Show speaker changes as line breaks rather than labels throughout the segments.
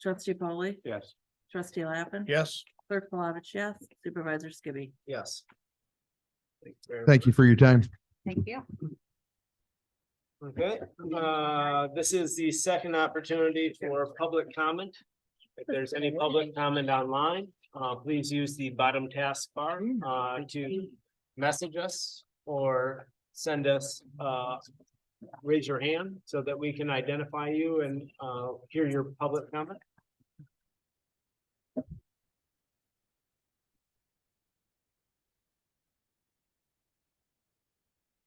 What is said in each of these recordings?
Trustee Polly,
Yes.
trustee Lappin.
Yes.
Clerk Palovich, yes. Supervisor Skibby.
Yes.
Thank you for your time.
Thank you.
Okay, uh, this is the second opportunity for public comment. If there's any public comment online, uh, please use the bottom taskbar, uh, to message us or send us, uh, raise your hand so that we can identify you and, uh, hear your public comment.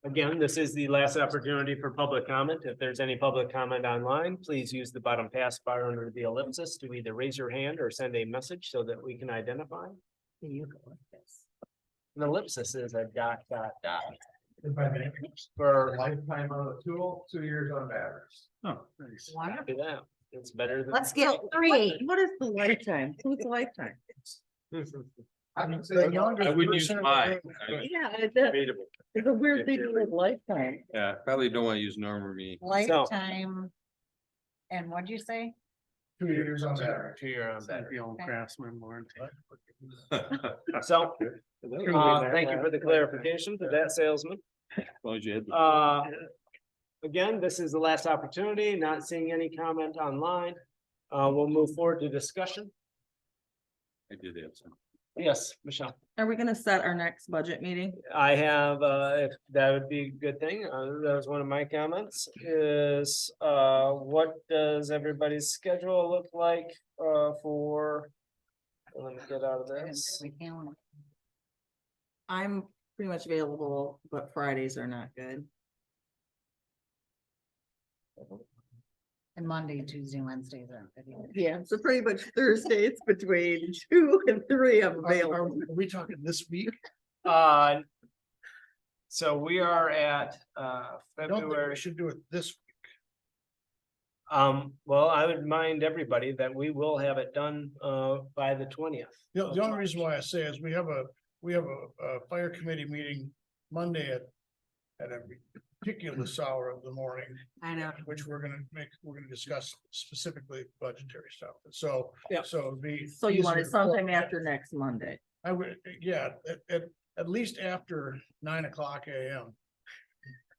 Again, this is the last opportunity for public comment. If there's any public comment online, please use the bottom taskbar under the ellipsis to either raise your hand or send a message so that we can identify.
You go like this.
An ellipsis is a dot, dot, dot.
If I may,
For,
lifetime on the tool, two years on batteries.
oh,
Wonderful.
do that. It's better than.
Let's get three.
What is the lifetime? Who's the lifetime?
I would say the youngest
I wouldn't use
person-
mine. I-
Yeah, it's a-
Debatable.
it's a weird thing to live lifetime.
Yeah, probably don't want to use normal me.
Lifetime. And what'd you say?
Two years on batteries.
Two year on battery.
craftsman warranty.
As
So, uh, thank you for the clarification to that salesman.
long as you had the-
Uh, again, this is the last opportunity, not seeing any comment online. Uh, we'll move forward to discussion.
I did have some.
Yes, Michelle.
Are we gonna set our next budget meeting?
I have, uh, if that would be a good thing, uh, that was one of my comments, is, uh, what does everybody's schedule look like, uh, for? Let me get out of this.
We can-
I'm pretty much available, but Fridays are not good.
And Monday, Tuesday, Wednesday, then.
Yeah, so pretty much Thursdays between two and three I'm
Are
available.
we talking this week?
Uh. So we are at, uh,
I don't think
February.
we should do it this.
Um, well, I would mind everybody that we will have it done, uh, by the twentieth.
The the only reason why I say is we have a, we have a, a fire committee meeting Monday at. At a ridiculous hour of the morning,
I know.
which we're gonna make, we're gonna discuss specifically budgetary stuff. So,
Yeah.
so it'd be.
So you want it
easier to-
sometime after next Monday?
I would, yeah, at, at, at least after nine o'clock AM,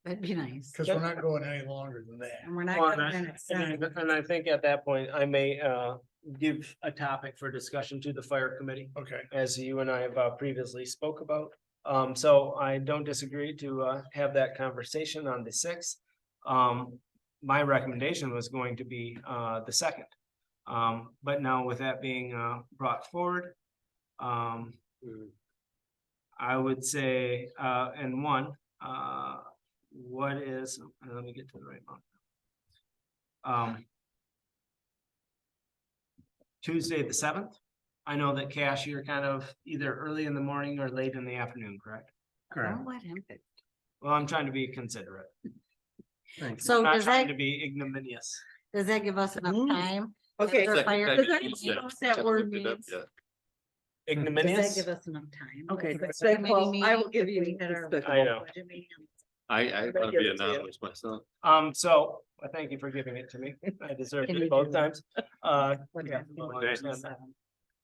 That'd be nice.
because we're not going any longer than that.
And we're not.
Well,
gonna
and
have
I- And I
seven.
and I think at that point, I may uh give a topic for discussion to the fire committee,
Okay,
as you and I have uh, previously spoke about. Um, so I don't disagree to uh have that conversation on the sixth. Um, my recommendation was going to be uh the second. Um, but now with that being uh brought forward, um. I would say uh and one, uh what is, let me get to the right one. Um. Tuesday, the seventh. I know that Cash, you're kind of either early in the morning or late in the afternoon, correct?
Don't let him pick.
Well, I'm trying to be considerate,
So
not
Oh, does
trying
that,
to be ignominious.
does that give us enough
Mm.
time?
Okay.
Is there fire-
Does anyone know what that word means?
Does that
Ignominious?
give us enough time?
Okay,
Because
so
the committee
I will
meeting,
give
if
you
we had our
despicable.
I know.
budget meeting on
I, I
But
want
give
to be
it to you.
anonymous myself.
Um, so, I thank you for giving it to me. I deserved
Can
it
you
both
do-
times. Uh,
what
yeah,
time
well, I
Okay.
understand that.
seven.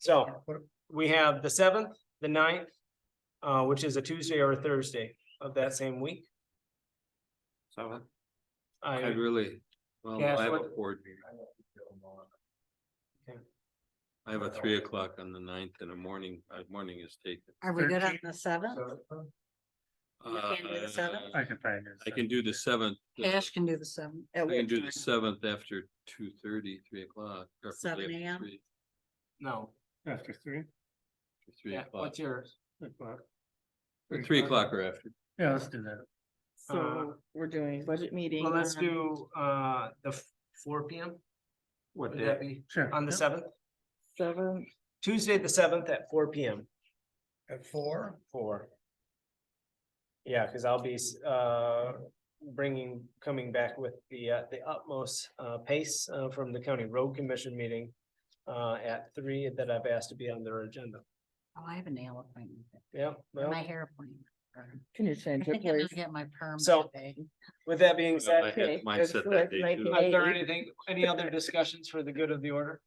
So we have the seventh, the ninth, uh, which is a Tuesday or a Thursday of that same week.
So I
I,
really, well,
Cash,
I have a
what-
board meeting.
Okay.
I have a three o'clock on the ninth and a morning, uh, morning is taken.
Are we good on
13th,
the seventh? You can't do the seventh?
Uh, I can do the seventh. uh,
Cash can do the seventh.
I can do the seventh after two thirty, three o'clock. preferably
7
after
a.m.?
three-
no,
After three.
Three
yeah,
o'clock,
what's yours?
or three o'clock or after.
Yeah, let's do that.
So we're doing budget meeting.
uh, Well, let's
on-
do, uh, the f- four P M. Would
day?
that be
Sure.
on the seventh,
Seven,
Tuesday, the seventh at four P M?
At four,
Four. Yeah, cause I'll be, s- uh, bringing, coming back with the, uh, the utmost, uh, pace, uh, from the county road commission meeting. Uh, at three that I've asked to be on their agenda.
Oh, I have a nail appointment,
Yeah, well,
my hair appointment.
can you
I
change it,
think I'm gonna
please?
get my perm.
So-
today.
with that being
Yeah, I
said,
had
Okay.
mine set that day, too.
is there anything, any other discussions for the good of the order?